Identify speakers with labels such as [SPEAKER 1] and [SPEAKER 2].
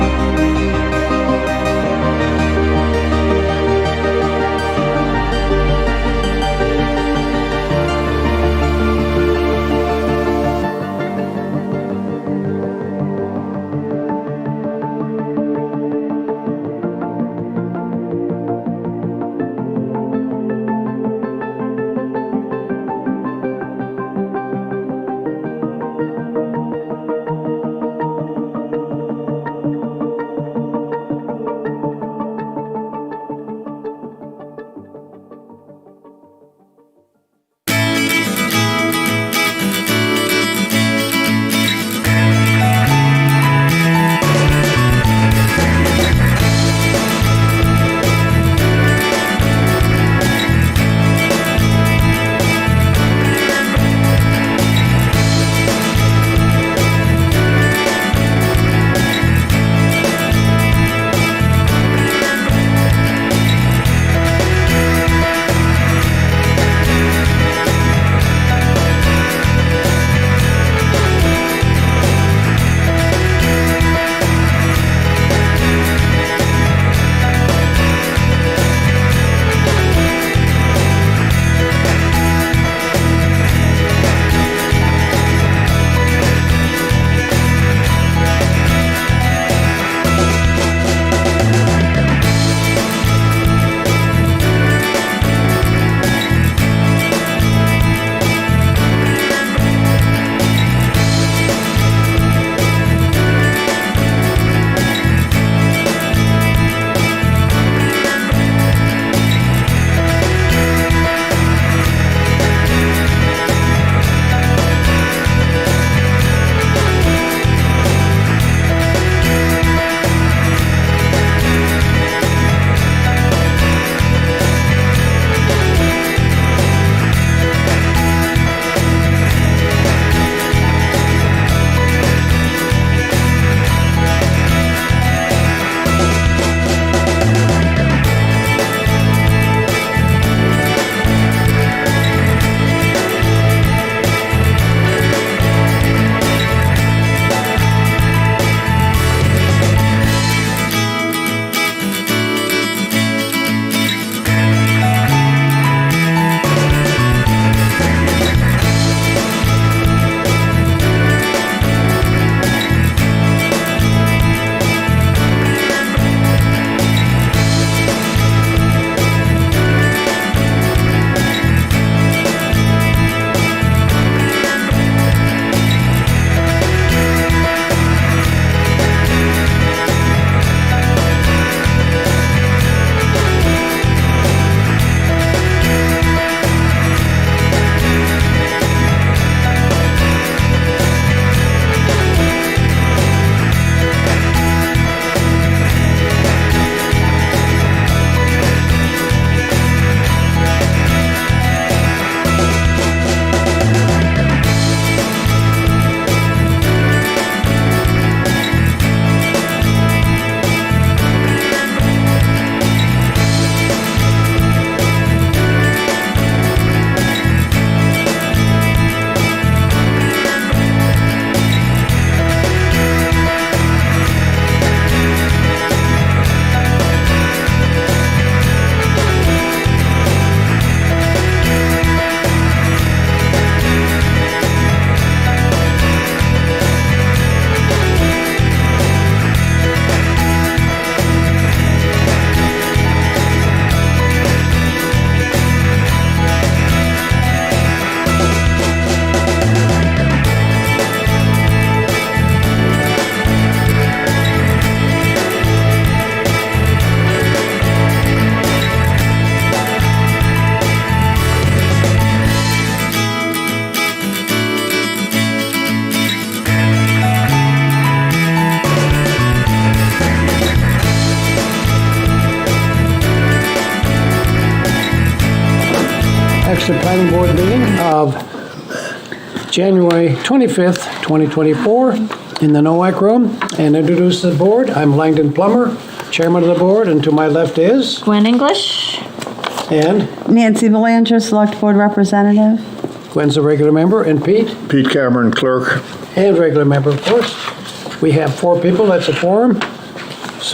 [SPEAKER 1] Exeter Planning Board meeting of January 25th, 2024, in the NOAC Room, and introduce the board. I'm Langdon Plummer, Chairman of the Board, and to my left is,
[SPEAKER 2] Gwen English.
[SPEAKER 1] and
[SPEAKER 3] Nancy Belanger, Select Board Representative.
[SPEAKER 1] Gwen's a regular member, and Pete,
[SPEAKER 4] Pete Cameron, clerk.
[SPEAKER 1] and regular member, of course. We have four people, that's a forum.